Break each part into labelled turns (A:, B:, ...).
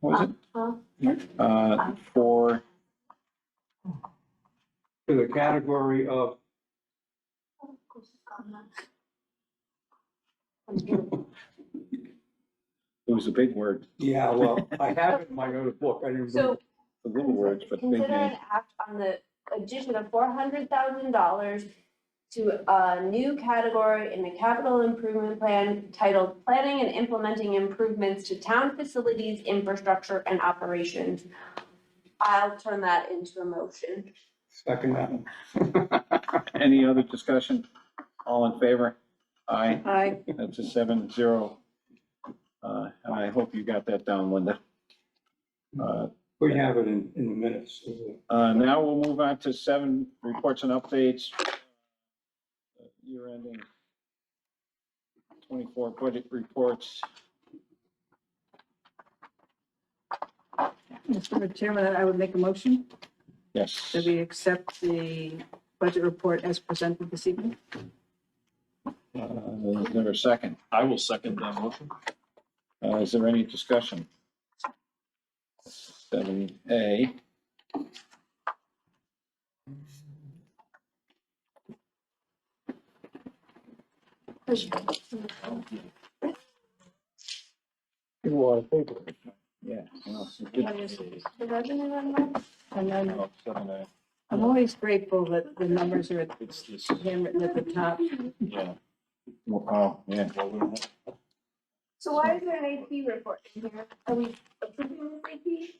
A: What was it? Uh, for,
B: to the category of,
A: it was a big word,
B: yeah, well, I have it in my notebook, I didn't. bring
C: So
B: it.
A: the little words, but big
C: Consider
A: names.
C: an act on the addition of four hundred thousand dollars to a new category in the capital improvement plan titled Planning and Implementing Improvements to Town Facilities, Infrastructure and Operations. I'll turn that into a motion.
B: Second that.
A: Any other discussion? All in favor? Aye,
C: Aye.
A: that's a seven zero. Uh, and I hope you got that down, Linda. Uh,
B: We have it in, in the minutes. is it?
A: Uh, now we'll move on to seven reports and updates. Year ending twenty-four budget reports.
D: Mr. Chairman, I would make a motion
A: Yes.
D: that we accept the budget report as presented this evening.
A: Uh, Is there a second?
E: I will second that motion.
A: Uh, is there any discussion? Seven A. Yeah. well, it's a good-
D: And I'm,
A: oh, seven A.
D: I'm always grateful that the numbers are
E: It's this,
D: handwritten at the top.
E: yeah.
A: Oh, yeah.
E: Well, we don't have-
C: So why is there an AP report in here? Are we approving this AP?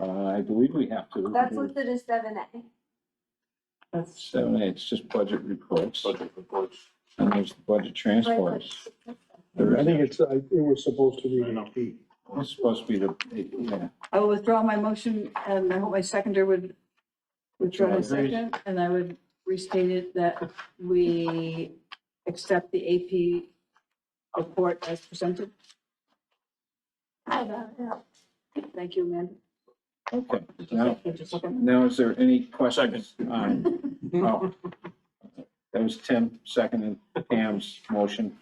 A: Uh, I believe we have to.
C: That's listed as seven A.
D: That's
A: Seven A, it's just budget reports,
E: Budget reports.
A: and there's the budget transfers. There
F: I
A: is-
F: think it's, I- it was supposed to be an AP.
A: It's supposed to be the, yeah,
D: I will withdraw my motion and I hope my seconder would withdraw my
A: Agreed.
D: second. And I would restate it that we accept the AP report as presented. Thank you, Amanda.
A: okay. Now,
D: Just a second.
A: now is there any questions? on- oh. That was Tim, second and Pam's motion.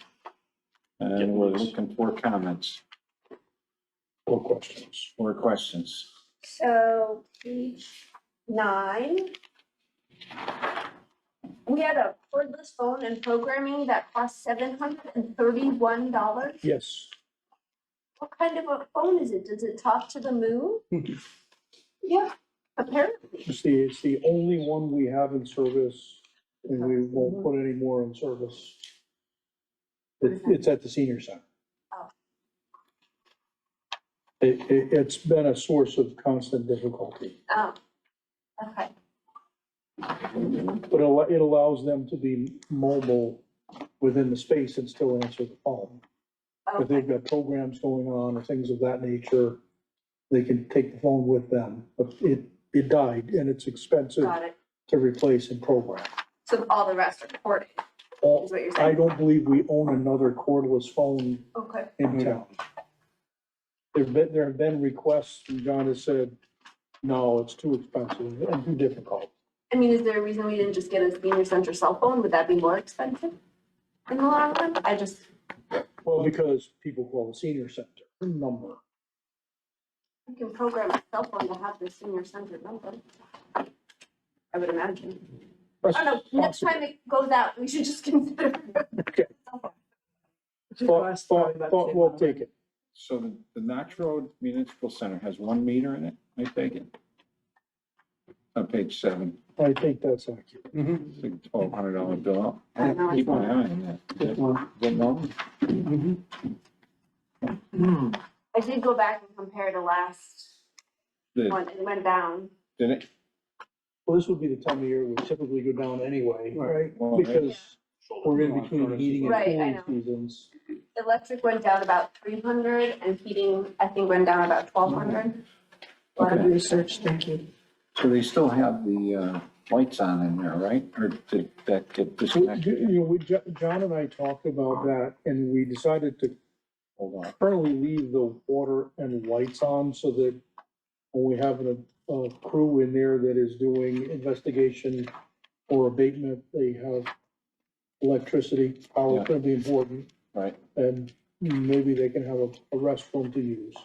A: And we're looking for comments
F: Four questions.
A: or questions.
C: So page nine. We had a cordless phone and programming that cost seven hundred and thirty-one dollars.
F: Yes.
C: What kind of a phone is it? Does it talk to the moon? Yeah, apparently.
F: It's the, it's the only one we have in service and we won't put any more in service. It, it's at the senior center.
C: Oh.
F: It, it, it's been a source of constant difficulty,
C: Oh, okay.
F: but it al- it allows them to be mobile within the space and still answer the phone. If
C: Okay.
F: they've got programs going on or things of that nature, they can take the phone with them. But it, it died and it's expensive
C: Got it.
F: to replace and program.
C: So all the rest are corded,
F: Uh,
C: is what you're
F: I
C: saying?
F: don't believe we own another cordless phone
C: Okay.
F: in town. There've been, there have been requests, and John has said, no, it's too expensive and too difficult.
C: I mean, is there a reason we didn't just get a senior center cell phone? Would that be more expensive in the long run? I just,
F: Well, because people call the senior center number.
C: you can program a cell phone to have the senior center number. I would imagine. I don't know, next time it goes out, we should just consider.
F: Okay. Thought, thought, thought we'll take it.
A: So the, the Notch Road Municipal Center has one meter in it, I take it? On page seven,
F: I think that's accurate.
A: it's like twelve hundred dollar bill.
C: I don't know.
A: Keep an eye on that. Good number.
C: I did go back and compare to last
A: Did,
C: one, it went down.
A: did it?
F: Well, this would be the time of year we typically go down anyway, right?
A: Well,
F: Because we're in
B: Yeah.
F: between heating and
C: Right, I
F: cooling
C: know.
F: seasons.
C: Electric went down about three hundred and heating, I think, went down about twelve hundred.
D: A lot of research, thank you.
A: So they still have the uh, lights on in there, right? Or did that get
F: We-
A: disconnected?
F: You know, we, Jo- John and I talked about that and we decided to
A: Hold on.
F: currently leave the water and lights on so that when we have a, a crew in there that is doing investigation or abatement, they have electricity, power,
A: Yeah.
F: could be important,
A: Right,
F: and maybe they can have a, a restroom to use.